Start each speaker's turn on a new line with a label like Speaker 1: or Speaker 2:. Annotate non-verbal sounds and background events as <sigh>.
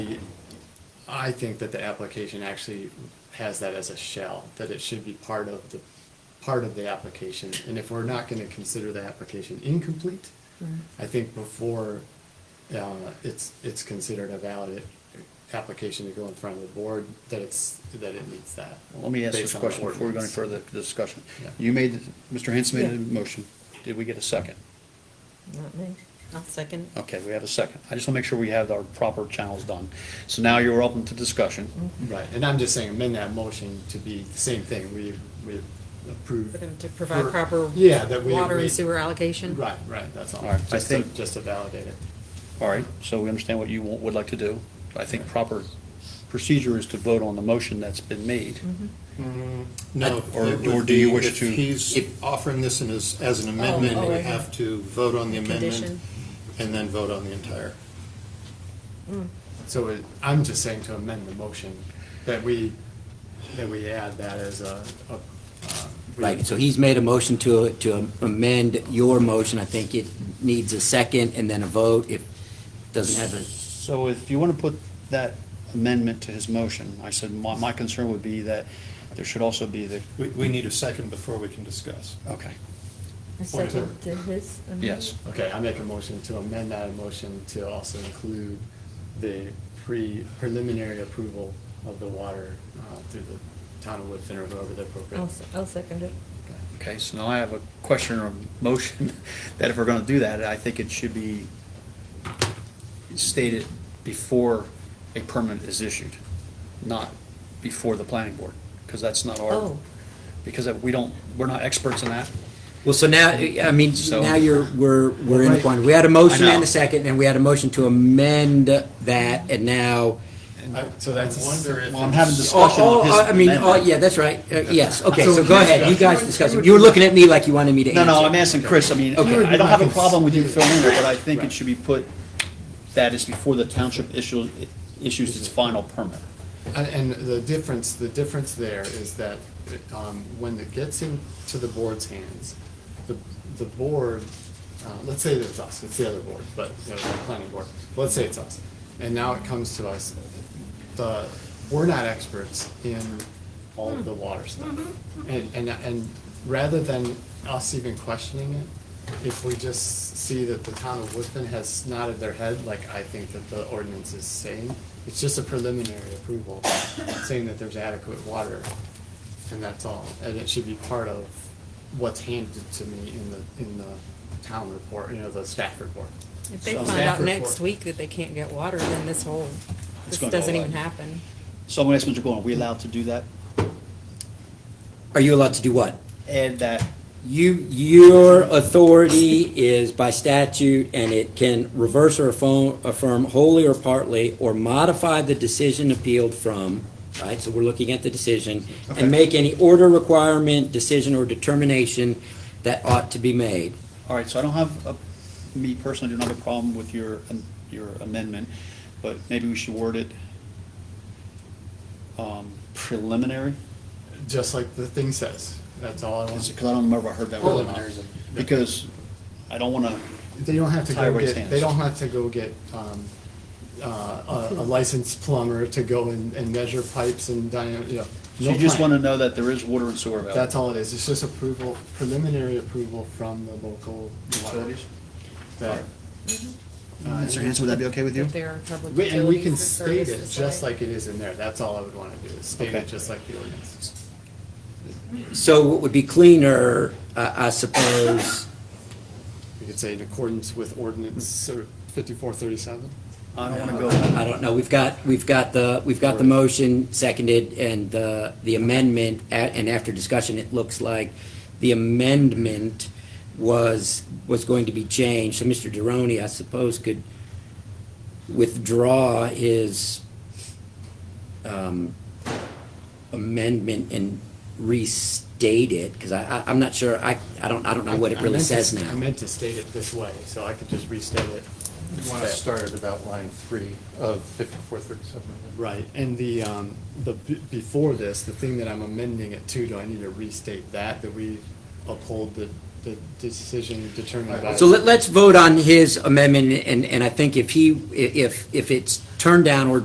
Speaker 1: I think that the application actually has that as a shell, that it should be part of the, part of the application. And if we're not gonna consider the application incomplete,
Speaker 2: Hmm,
Speaker 1: I think before, uh, it's, it's considered a valid application to go in front of the board, that it's, that it meets that.
Speaker 3: Let me ask this
Speaker 1: based on the
Speaker 3: question before we go any
Speaker 1: ordinance.
Speaker 3: further discussion.
Speaker 1: Yeah.
Speaker 3: You made, the- Mr. Hanson made a
Speaker 2: Yeah.
Speaker 3: motion. Did we get a second?
Speaker 2: Not me.
Speaker 4: I'll second.
Speaker 3: Okay, we have a second. I just want to make sure we have our proper channels done. So now you're open to discussion.
Speaker 1: Right, and I'm just saying amend that motion to be the same thing, we, we approve.
Speaker 4: For them to provide
Speaker 1: for-
Speaker 4: proper
Speaker 1: Yeah, that we.
Speaker 4: water
Speaker 1: we-
Speaker 4: and sewer allocation.
Speaker 1: Right, right, that's all.
Speaker 3: All right, I
Speaker 1: Just to,
Speaker 3: think-
Speaker 1: just to validate it.
Speaker 3: All right, so we understand what you wa- would like to do. I think proper procedure is to vote on the motion that's been made.
Speaker 5: No.
Speaker 3: Or-
Speaker 5: it would
Speaker 3: or do you
Speaker 5: be
Speaker 3: wish
Speaker 5: if
Speaker 3: to-
Speaker 5: he's offering this in as, as an amendment,
Speaker 4: oh,
Speaker 5: we
Speaker 4: I-
Speaker 5: have to vote on the amendment
Speaker 4: Condition.
Speaker 5: and then vote on the entire.
Speaker 1: So it- I'm just saying to amend the motion, that we, that we add that as a. a, uh, we-
Speaker 6: Right, so he's made a motion to, to amend your motion. I think it needs a second and then a vote. It doesn't have a,
Speaker 3: So if you want to put that amendment to his motion, I said, my, my concern would be that there should also be the,
Speaker 5: We, we need a second before we can discuss.
Speaker 3: okay,
Speaker 2: A second to his. amendment?
Speaker 3: yes.
Speaker 1: Okay, I make a motion to amend that motion to also include the pre, preliminary approval of the water uh, through the town of Woodfin or whoever the appropriate.
Speaker 2: I'll, se- I'll second it.
Speaker 3: Okay, so now I have a question or a motion <laughs> that if we're going to do that, I think it should be stated before a permit is issued, not before the planning board, because that's not our,
Speaker 2: Oh.
Speaker 3: because we don't, we're not experts in that.
Speaker 6: well, so now, I mean,
Speaker 3: So-
Speaker 6: now you're, we're, we're in a quandary. We had a motion
Speaker 3: I
Speaker 6: and
Speaker 3: know.
Speaker 6: a second, and we had a motion to amend that, and now.
Speaker 1: I- So that's.
Speaker 5: I wonder if
Speaker 3: Well, I'm having
Speaker 5: it's-
Speaker 6: Oh,
Speaker 3: discussion
Speaker 6: oh,
Speaker 3: on his
Speaker 6: oh, I mean, oh,
Speaker 3: amendment.
Speaker 6: yeah, that's right. Uh, Yes, okay,
Speaker 1: So-
Speaker 6: so go ahead. You guys discuss it. You were looking at me like you wanted me to
Speaker 3: No,
Speaker 6: answer.
Speaker 3: no, I'm asking Chris, I mean,
Speaker 6: Okay.
Speaker 3: I don't have a problem with you filling in, but I think it should be put, that is before the township issues, issues its final permit.
Speaker 1: And, Uh, and the difference, the difference there is that, um, when it gets into the board's hands, the, the board, uh, let's say that it's us, it's the other board, but, you know, the planning board, let's say it's us. And now it comes to us, the, we're not experts in all of the water stuff. And, and, and rather than us even questioning it, if we just see that the town of Woodfin has nodded their head, like I think that the ordinance is saying, it's just a preliminary approval, saying that there's adequate water, and that's all. And it should be part of what's handed to me in the, in the town report, you know, the staff report.
Speaker 4: If they
Speaker 1: So
Speaker 4: find
Speaker 1: staff
Speaker 4: out next
Speaker 1: report-
Speaker 4: week that they can't get water, then this whole,
Speaker 3: It's
Speaker 4: this
Speaker 3: gonna go
Speaker 4: doesn't even
Speaker 3: away.
Speaker 4: happen.
Speaker 3: So I'm gonna ask Mr. Gorman, are we allowed to do that?
Speaker 6: Are you allowed to do what?
Speaker 3: Add that
Speaker 6: You, your authority is by statute, and it can reverse or affirm, affirm wholly or partly, or modify the decision appealed from, right? So we're looking at the decision,
Speaker 3: Okay.
Speaker 6: and make any order, requirement, decision, or determination that ought to be made.
Speaker 3: All right, so I don't have, a- me personally, I don't have a problem with your, um, your amendment, but maybe we should word it um, preliminary,
Speaker 1: Just like the thing says, that's all I
Speaker 3: because
Speaker 1: want.
Speaker 3: I don't remember if I heard that word. or not.
Speaker 1: Preliminary is a-
Speaker 3: Because I don't want to,
Speaker 1: They don't have to go
Speaker 3: Tyrell's
Speaker 1: get,
Speaker 3: hands.
Speaker 1: they don't have to go get, um, uh, a a licensed plumber to go and, and measure pipes and diameter, you know.
Speaker 3: so
Speaker 1: no
Speaker 3: you just
Speaker 1: plan.
Speaker 3: want to know that there is water and sewer available.
Speaker 1: That's all it is, it's just approval, preliminary approval from the local.
Speaker 3: Utilities?
Speaker 1: That-
Speaker 3: Mr. Hanson, would that be okay with you?
Speaker 4: If there are public
Speaker 1: We- And we can
Speaker 4: utilities or
Speaker 1: state it
Speaker 4: services
Speaker 1: just
Speaker 4: like-
Speaker 1: like it is in there, that's all I would wanna do, is state
Speaker 3: Okay.
Speaker 1: it just like the ordinance.
Speaker 6: So what would be cleaner, I, I suppose,
Speaker 1: We could say in accordance with ordinance fifty-four thirty-seven.
Speaker 3: I don't want to go,
Speaker 6: I don't know, we've got, we've got the, we've got the motion seconded and the, the amendment, a- and after discussion, it looks like the amendment was, was going to be changed, so Mr. Deroni, I suppose, could withdraw his um, amendment and restate it, because I, I, I'm not sure, I, I don't, I don't know what it
Speaker 1: I
Speaker 6: really
Speaker 1: meant to-
Speaker 6: says
Speaker 1: I
Speaker 6: now.
Speaker 1: meant to state it this way, so I could just restate it.
Speaker 5: You want to start at about line three of fifty-four thirty-seven.
Speaker 1: Right, and the, um, the, b- before this, the thing that I'm amending it to, do I need to restate that, that we uphold the, the decision determined by?
Speaker 6: So let, let's vote on his amendment, and, and I think if he, i- if, if it's turned down or